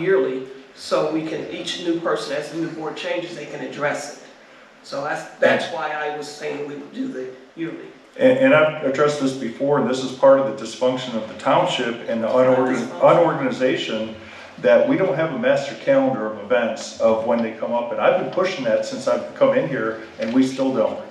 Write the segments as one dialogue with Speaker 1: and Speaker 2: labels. Speaker 1: yearly, so we can, each new person, as the new board changes, they can address it. So that's, that's why I was saying we would do the yearly.
Speaker 2: And, and I've addressed this before, and this is part of the dysfunction of the township and the unorgan-
Speaker 1: Dysfunction.
Speaker 2: unorganization, that we don't have a master calendar of events of when they come up, and I've been pushing that since I've come in here, and we still don't.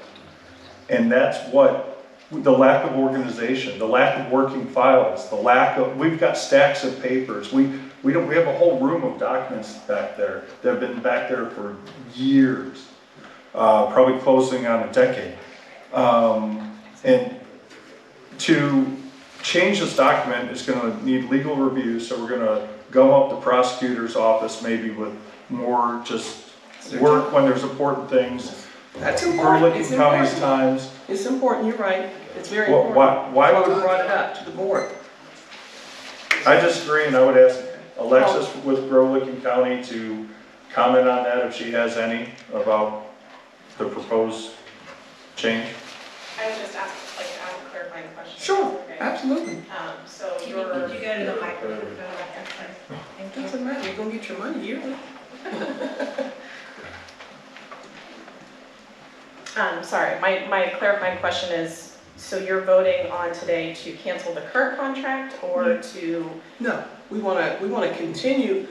Speaker 2: And that's what, the lack of organization, the lack of working files, the lack of, we've got stacks of papers, we, we don't, we have a whole room of documents back there that have been back there for years, uh, probably closing on a decade. Um, and to change this document is gonna need legal review, so we're gonna gum up the prosecutor's office maybe with more just work when there's important things.
Speaker 1: That's
Speaker 2: We're
Speaker 1: important, it's
Speaker 2: looking counties
Speaker 1: important.
Speaker 2: times.
Speaker 1: It's important, you're right, it's very
Speaker 2: Well,
Speaker 1: important.
Speaker 2: why- why
Speaker 1: That's
Speaker 2: would-
Speaker 1: I brought it up to the board.
Speaker 2: I disagree, and I would ask Alexis with Grolikin County to comment on that if she has any about the proposed change.
Speaker 3: I would just ask, like, ask clarifying questions.
Speaker 1: Sure, Uh,
Speaker 3: Okay.
Speaker 1: absolutely.
Speaker 3: Um, so
Speaker 4: Can you,
Speaker 3: your,
Speaker 4: could you go to the microphone? Thank you.
Speaker 1: Doesn't matter, you're gonna get your money yearly.
Speaker 3: um, sorry, my, my clarifying question is, so you're voting on today to cancel the current contract or
Speaker 1: Mm-hmm.
Speaker 3: to?
Speaker 1: No, we wanna, we wanna continue,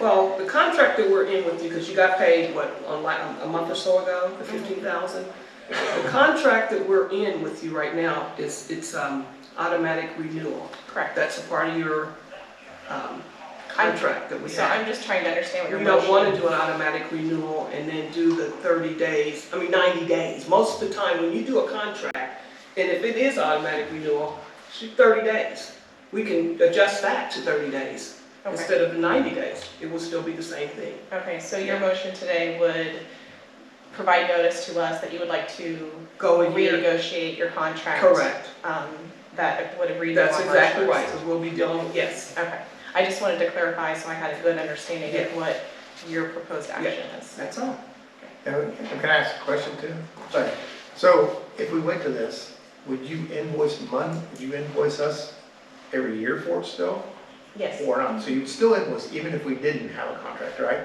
Speaker 1: well, the contract that we're in with you, because you got paid, what, on like, a month or so ago, the fifteen thousand? The contract that we're in with you right now is, it's, um, automatic renewal.
Speaker 3: Correct.
Speaker 1: That's a part of your, um, contract that we
Speaker 3: So
Speaker 1: have.
Speaker 3: I'm just trying to understand what your
Speaker 1: We
Speaker 3: motion.
Speaker 1: don't wanna do an automatic renewal and then do the thirty days, I mean ninety days. Most of the time, when you do a contract, and if it is automatic renewal, shoot thirty days. We can adjust that to thirty days
Speaker 3: Okay,
Speaker 1: instead of ninety days. It will still be the same thing.
Speaker 3: okay, so your motion today would provide notice to us that you would like to
Speaker 1: Go a year.
Speaker 3: renegotiate your contract.
Speaker 1: Oh, Correct.
Speaker 3: Um, that would agree to on
Speaker 1: That's
Speaker 3: March
Speaker 1: exactly
Speaker 3: 1st.
Speaker 1: right, because we'll be dealing, yes.
Speaker 3: Okay, I just wanted to clarify so I had a good understanding of what your proposed action is.
Speaker 1: That's all.
Speaker 5: And Can I ask a question too? Sorry. So if we went to this, would you invoice month, would you invoice us every year for it still?
Speaker 3: Yes,
Speaker 5: Or not? So you'd still invoice even if we didn't have a contract, right?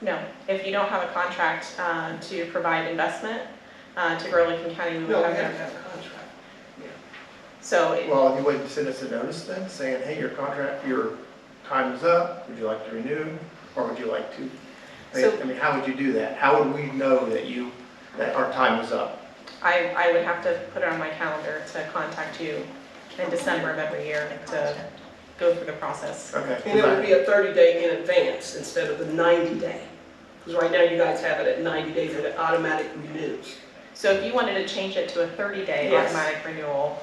Speaker 3: no, if you don't have a contract uh, to provide investment uh, to grow Lincoln County, we
Speaker 1: No,
Speaker 3: would
Speaker 1: we
Speaker 3: have
Speaker 1: have to
Speaker 3: that.
Speaker 1: have a contract.
Speaker 3: So it-
Speaker 5: Well, you wouldn't send us a notice then saying, hey, your contract, your time is up, would you like to renew? Or would you like to?
Speaker 3: So-
Speaker 5: I mean, how would you do that? How would we know that you, that our time is up?
Speaker 3: I, I would have to put it on my calendar to contact you in December of every year to go through the process.
Speaker 5: Okay.
Speaker 1: And it would be a 30-day in advance instead of the 90-day. Because right now you guys have it at 90 days and it automatically renews.
Speaker 3: So if you wanted to change it to a 30-day
Speaker 1: Yes.
Speaker 3: automatic renewal,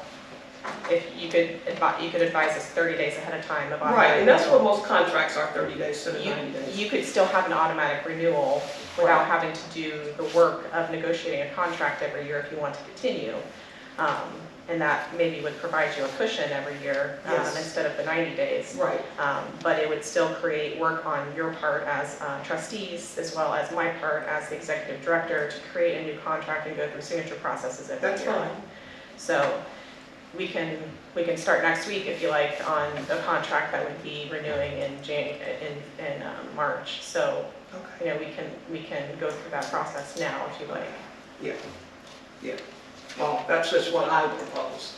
Speaker 3: if you could advise, you could advise us 30 days ahead of time of automatic
Speaker 1: Right, and that's
Speaker 3: renewal.
Speaker 1: what most contracts are, 30 days instead of
Speaker 3: you,
Speaker 1: 90 days.
Speaker 3: you could still have an automatic renewal without having to do the work of negotiating a contract every year if you want to continue. Um, And that maybe would provide you a cushion every year um,
Speaker 1: Yes.
Speaker 3: instead of the 90 days.
Speaker 1: Right,
Speaker 3: Um, But it would still create work on your part as uh, trustees, as well as my part as the executive director to create a new contract and go through signature processes every year.
Speaker 1: that's fine.
Speaker 3: So we can, we can start next week, if you like, on a contract that would be renewing in Jan, in, in um, March. So,
Speaker 1: Okay.
Speaker 3: you know, we can, we can go through that process now, if you like.
Speaker 1: Well, that's just what I would propose.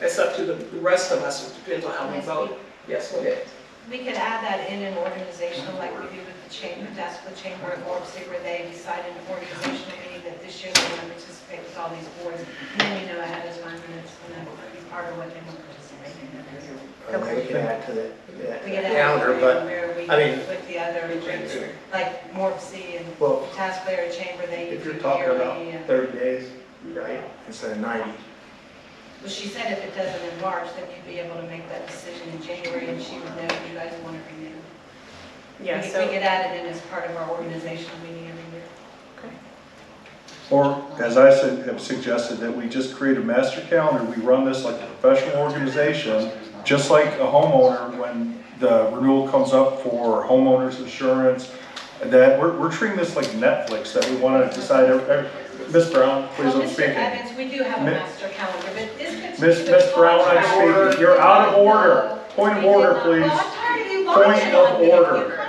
Speaker 1: It's up to the the rest of us, it depends on how we vote. Yes, go ahead.
Speaker 4: We could add that in an organizational like we do with the chamber, that's the chamber of orbs, where they decide in an organizational meeting that this year they want to participate with all these boards. And then we know ahead of time and it's going to be part of what they want to participate in.
Speaker 5: And then we can add to that, that
Speaker 4: We could add
Speaker 5: calendar, but,
Speaker 4: where we,
Speaker 5: I mean-
Speaker 4: with the other groups, like Morpsey and
Speaker 5: well,
Speaker 4: Task Layer Chamber, they
Speaker 5: If
Speaker 4: do
Speaker 5: you're talking about
Speaker 4: yearly. uh, and-
Speaker 5: 30 days, right, instead of 90.
Speaker 4: Well, she said if it doesn't in March, then you'd be able to make that decision in January and she would know if you guys want to renew.
Speaker 3: Yeah,
Speaker 4: We-
Speaker 3: so.
Speaker 4: We get added in as part of our organizational meeting every year.
Speaker 2: Or, as I said, have suggested, that we just create a master calendar, we run this like a professional organization, just like a homeowner, when the renewal comes up for homeowner's insurance, that we're, we're treating this like Netflix, that we want to decide, every- every- Ms. Brown, please,
Speaker 4: Well,
Speaker 2: I'm
Speaker 4: Mr.
Speaker 2: speaking.
Speaker 4: Evans, we do have a
Speaker 2: Mi-
Speaker 4: master calendar, but this
Speaker 2: Miss-
Speaker 4: particular.
Speaker 2: Miss Brown, I'm
Speaker 4: contract-
Speaker 2: speaking. You're out of order.
Speaker 4: No,
Speaker 2: Point of
Speaker 4: we did
Speaker 2: order,
Speaker 4: not.
Speaker 2: please.
Speaker 4: Well, I'm tired of you
Speaker 2: point of order.